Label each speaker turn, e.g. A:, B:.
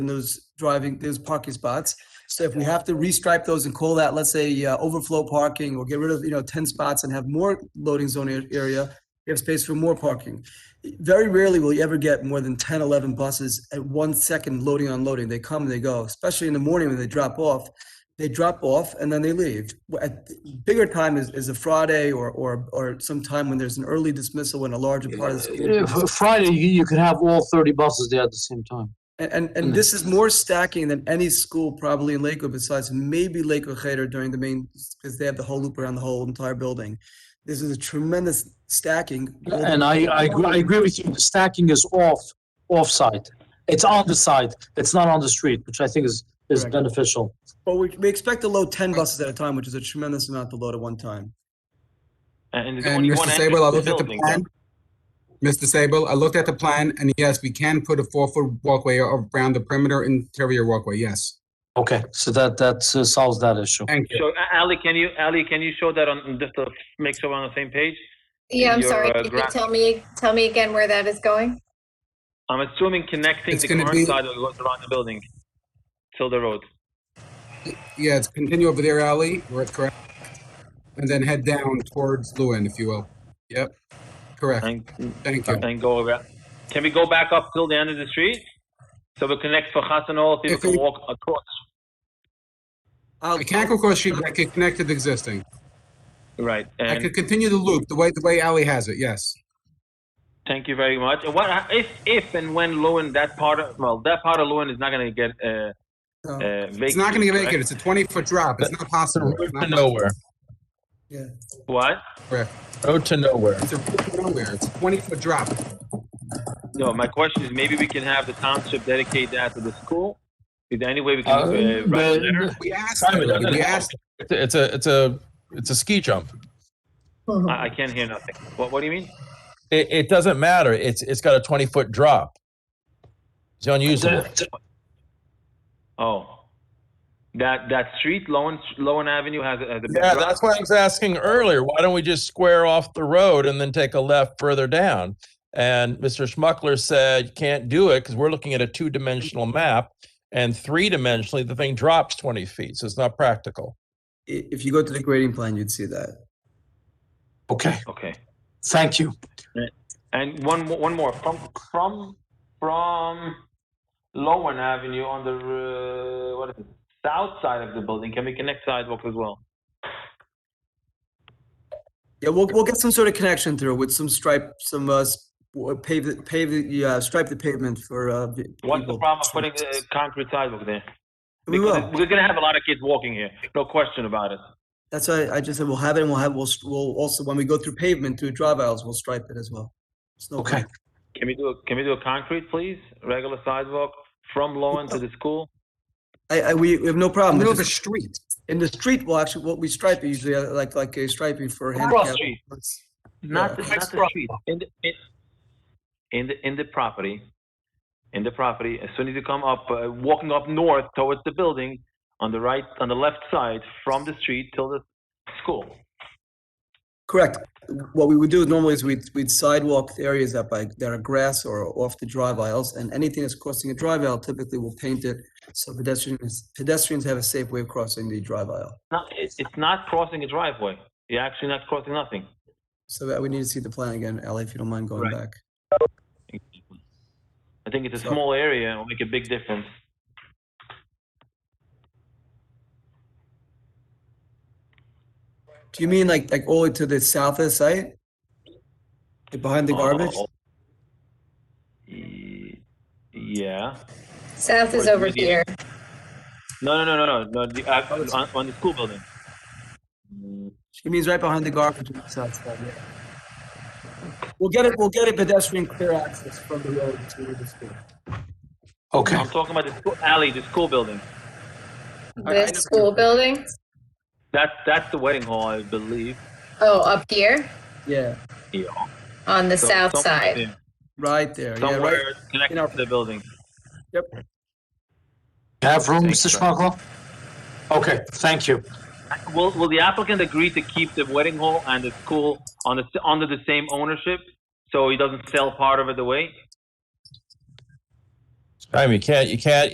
A: in those driving, those parking spots. So if we have to restripe those and call that, let's say, uh, overflow parking or get rid of, you know, ten spots and have more loading zone a- area, we have space for more parking. Very rarely will you ever get more than 10, 11 buses at one second loading, unloading. They come and they go, especially in the morning when they drop off. They drop off and then they leave. Wh- At bigger time is, is a Friday or, or, or some time when there's an early dismissal and a larger part of the school.
B: Yeah, for Friday, you you can have all 30 buses there at the same time.
A: And, and, and this is more stacking than any school probably in Lakewood besides maybe Lakewood Cheder during the main, because they have the whole loop around the whole entire building. This is a tremendous stacking.
B: And I, I agree, I agree with you, the stacking is off, off-site. It's on the site, it's not on the street, which I think is, is
A: Correct.
B: beneficial.
A: But we, we expect to load ten buses at a time, which is a tremendous amount to load at one time.
C: And there's
D: And
C: only one
D: Mr.
C: entrance
D: Sable, I
C: to the
D: looked at the
C: building.
D: plan. Mr. Sable, I looked at the plan, and yes, we can put a four-foot walkway around the perimeter interior walkway, yes.
B: Okay, so that, that uh, solves that issue.
D: Thank you.
C: So A- Ali, can you, Ali, can you show that on, just to make sure we're on the same page?
E: Yeah, I'm
C: your,
E: sorry.
C: uh,
E: Can you
C: graph.
E: tell me, tell me again where that is going?
C: I'm assuming connecting
D: It's
C: the
D: gonna
C: current
D: be-
C: side of what's around the building till the road.
D: Yeah, it's continue over there, Ali, where it's correct. And then head down towards Lewin, if you will. Yep, correct.
C: And,
D: Thank you.
C: and go around. Can we go back up till the end of the street? So we connect for Hassanol, people
D: If
C: can
D: we-
C: walk across.
D: I can't go across street, but I could connect to the existing.
C: Right.
D: I
C: And
D: could continue the loop, the way, the way Ali has it, yes.
C: Thank you very much. And What if, if and when Lewin that part of well that part of Lewin is not going to get uh,
A: No.
C: uh, vacated.
D: It's not gonna get
C: correct?
D: vacant, it's a twenty-foot drop, it's not possible. It's not
F: nowhere.
C: What?
D: correct.
F: Road to nowhere.
D: It's a route nowhere, it's a twenty-foot drop.
C: No, my question is maybe we can have the township dedicate that to the school. Is there any way we can
B: Uh,
C: uh, write a
B: but-
C: letter?
D: We asked,
F: Simon,
D: already,
F: doesn't
D: we
F: it-
D: asked,
F: It's a- It's a it's a it's a ski jump.
C: I, I can't hear nothing. What? What do you mean?
F: It, it doesn't matter. It's it's got a twenty foot drop. It's unusable.
C: Oh, that that street, Lowen Lowen Avenue has, a- has a big
F: Yeah,
C: drop.
F: that's what I was asking earlier. Why don't we just square off the road and then take a left further down? And Mr. Schmuckler said you can't do it because we're looking at a two dimensional map, and three dimensionally the thing drops twenty feet, so it's not practical.
A: I- If you go to the grading plan, you'd see that.
B: Okay,
C: okay.
B: thank you.
C: And one mo- one more from from from Lowen Avenue on the uh, what is it? South side of the building. Can we connect sidewalks as well?
A: Yeah, we'll, we'll get some sort of connection through with some stripe, some, uh, s- w- pave, the- pave, the- yeah, stripe the pavement for, uh. the
C: What's the
A: people.
C: problem of putting uh, concrete sidewalk there?
A: We
C: Because
A: will.
C: We're gonna have a lot of kids walking here. No question about it.
A: That's why I just said we'll have it and we'll have, we'll, s- we'll also, when we go through pavement, through drive aisles, we'll stripe it as well. It's no
B: Okay.
C: Can we do a, can we do a concrete, please? Regular sidewalk from Lowen to the school.
A: I, I, we we have no problem.
D: middle
A: with
D: of the
A: this.
D: street.
A: In the street, well, actually, what we stripe it usually, uh, like, like a striping for
C: Cross
A: handicap.
C: street,
A: Yeah.
C: not the, not the street. In the in, in the in the property, in the property. As soon as you come up, uh, walking up north towards the building, on the right, on the left side, from the street till the school.
A: Correct. What we would do normally is we'd, we'd sidewalk the areas that by, that are grass or off the drive aisles, and anything that's crossing a drive aisle typically will paint it so pedestrians, pedestrians have a safe way of crossing the drive aisle.
C: Not, it, it's not crossing a driveway. You're actually not crossing nothing.
A: So that we need to see the plan again, Ally, if you don't mind going
C: Right.
A: back.
C: I think it's a
A: So-
C: small area and will make a big difference.
A: Do you mean like, like all the way to the south of the site? Like Behind the garbage?
C: Oh. Y- Yeah.
E: South is
C: Or
E: over
C: media.
E: here.
C: No, no, no, no, no, no. The, uh, on, on the school building. Mm,
A: She means right behind the garbage on the south side, yeah. We'll get it, we'll get a pedestrian clear access from the road to the school.
B: Okay,
C: I'm talking about the school alley, the school building.
A: I- I
E: This
A: know-
E: school building?
C: That's that's the wedding hall, I believe.
E: Oh, up here
A: Yeah,
C: Yeah.
E: on the
C: So
E: south
C: somewhere
E: side.
C: there,
A: right there, yeah, right.
C: Somewhere connected
A: in our-
C: to the building.
B: have room, Mr. Schmuckler? Okay, thank you.
C: Will Will the applicant agree to keep the wedding hall and the school on the under the same ownership, so he doesn't sell part of it away?
F: I mean, you can't you can't